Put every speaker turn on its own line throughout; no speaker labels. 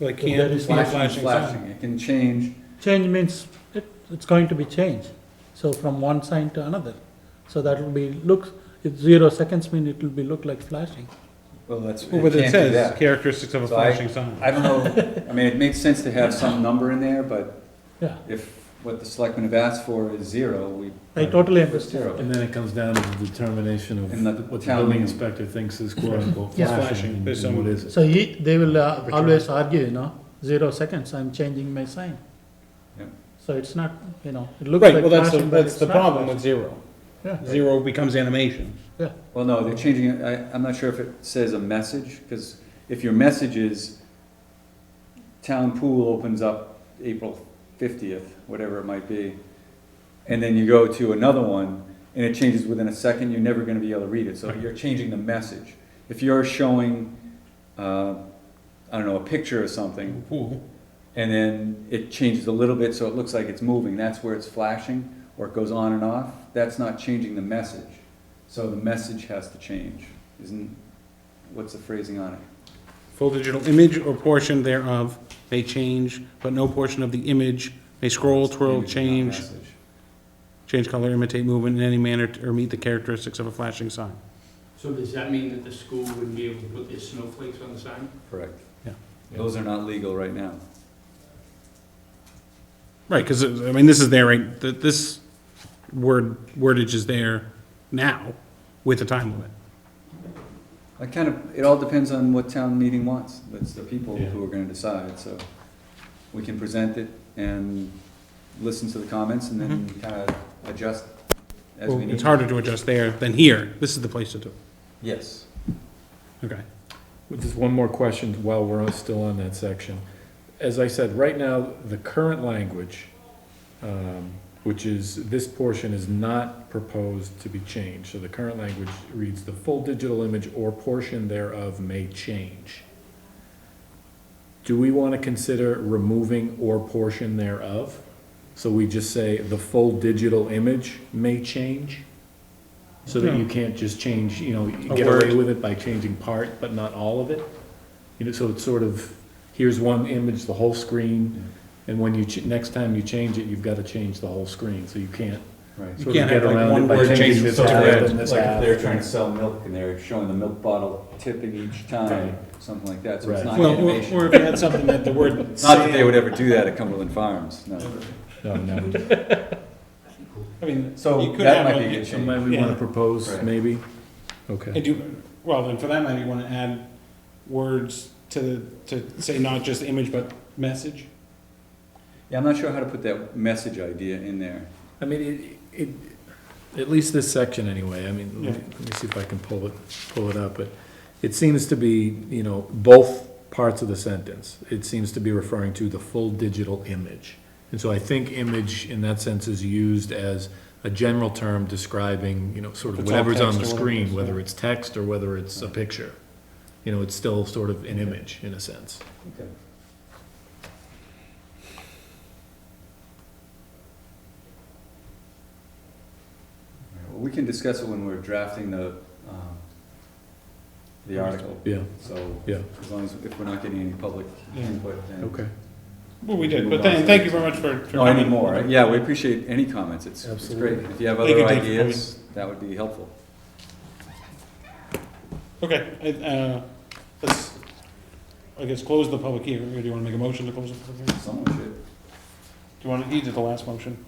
Like
If there
can't,
is
can't
light,
flashing sign.
Flashing, it can change.
Change means it, it's going to be changed, so from one sign to another. So that will be, looks, it's zero seconds mean it will be look like flashing.
Well, that's, it
Well, but it
can't do
says
that.
characteristics of a
So I-
flashing sign.
I don't know, I mean, it makes sense to have some number in there, but
Yeah,
if what the selectmen have asked for is zero, we.
I totally
It's
understand.
zero.
And then it comes down to the determination
And the
of what the
town meeting.
building inspector thinks is quote unquote
Yeah.
flashing
Flashing,
and
there's
and what
some-
is it.
So he, they will uh,
Return.
always argue, you know, zero seconds, I'm changing my sign.
Yeah.
So it's not, you know, it looks
Right,
like
well, that's, the
flashing, but
that's
it's
the
not
problem
flashing.
with zero.
Yeah.
Zero becomes animation.
Yeah,
Well, no, they're changing it, I, I'm not sure if it says a message, because if your message is town pool opens up April fiftieth, whatever it might be, and then you go to another one, and it changes within a second, you're never gonna be able to read it, so you're changing the message. If you're showing, uh, I don't know, a picture or something,
Cool.
and then it changes a little bit, so it looks like it's moving, that's where it's flashing, or it goes on and off, that's not changing the message. So the message has to change, isn't, what's the phrasing on it?
Full digital image or portion thereof may change, but no portion of the image may scroll, twirl,
Image, not
change,
message.
change color, imitate movement in any manner, t- or meet the characteristics of a flashing sign.
So does that mean that the school wouldn't be able to put their snowflakes on the sign?
Correct.
Yeah.
Those are not legal right now.
Right, because, I mean, this is there, right, th- this word, wordage is there now with a time limit.
I kind of, it all depends on what town meeting wants, that's the people who are gonna decide, so. We can present it and listen to the comments and then kind of adjust
Mm-hmm.
as
Well,
we need.
It's harder to adjust there than here. This is the place to do
Yes.
it. Okay.
But Just one more question while we're on- still on that section. As I said, right now, the current language, um, which is, this portion is not proposed to be changed. So the current language reads, "The full digital image or portion thereof may change." Do we want to consider removing "or portion thereof"? So we just say, "The full digital image may change"? So that you can't just change, you know,
A
get away
word.
with it by changing part, but not all of it? You know, so it's sort of, here's one image, the whole screen, and when you, ch- next time you change it, you've gotta change the whole screen, so you can't
Right.
You
sort of
can't
get
have like
around
one
it by
word change
changing this
to
half
red.
and this
Like if
half.
they're trying to sell milk and they're showing the milk bottle tipping each time, something like that, so it's
Right.
not
Well, or
animation.
or if you had something that the word.
Not that they would ever do that at Cumberland Farms, no.
No, Oh, no.
I mean, you
So
could
that
have
might
a-
be a good
So
change.
might we wanna
Yeah.
propose,
Right.
maybe?
I
Okay.
do, well, then for that matter, you want to add words to, the to say not just image, but message?
Yeah, I'm not sure how to put that message idea in there.
I mean, it, it, at least this section anyway, I mean,
Yeah.
let me let me see if I can pull it, pull it up, but it seems to be, you know, both parts of the sentence. It seems to be referring to the full digital image. And so I think image in that sense is used as a general term describing, you know, sort of
It's all
whatever's on the
text or whatever it is,
screen,
yeah.
whether it's text or whether it's a picture. You know, it's still sort of an image in a sense.
Well, We can discuss it when we're drafting the, um, the article,
Yeah,
so
yeah,
as long as, if we're not getting any public
Yeah.
input, then.
okay.
Well, we did, but then, thank you very much for. for
No, any
coming.
more, yeah, we appreciate any comments, it's, it's great.
Absolutely.
If you have
Thank
other
you, Dave, for
ideas, that would be helpful.
Okay, I- uh, let's, I guess, close the public hearing, or do you want to make a motion to close the public hearing?
Someone should.
Do you want to, you did the last motion.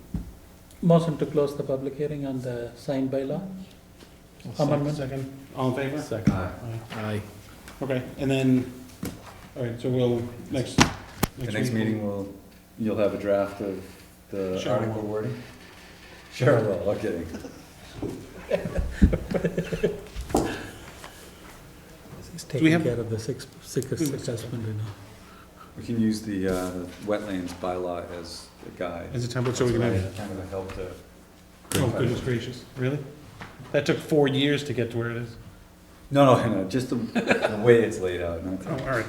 motion to close the public hearing on the sign by law. Amendment.
Second. All in favor?
Second.
Aye.
Aye.
Aye.
Okay, and then, all right, so we'll, next.
The next meeting will, you'll have a draft of the
Sure.
article wording? Sure will, I'm kidding.
He's
we
taking
have-
care of the six, six assessment, you know.
We can use the, uh, the wetlands bylaw as a guide.
As a template, so we can have.
It's Kind of a help to.
Oh, goodness gracious, really? That took four years to get to where it is.
No, no, no, just the, the way it's laid out, not
Oh, all right.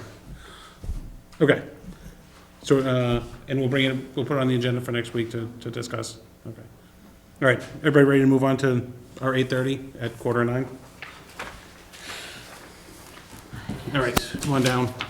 Okay. So, uh, and we'll bring it, we'll put it on the agenda for next week to, to discuss. Okay. All right, everybody ready to move on to our eight thirty at quarter nine? All right, come on down.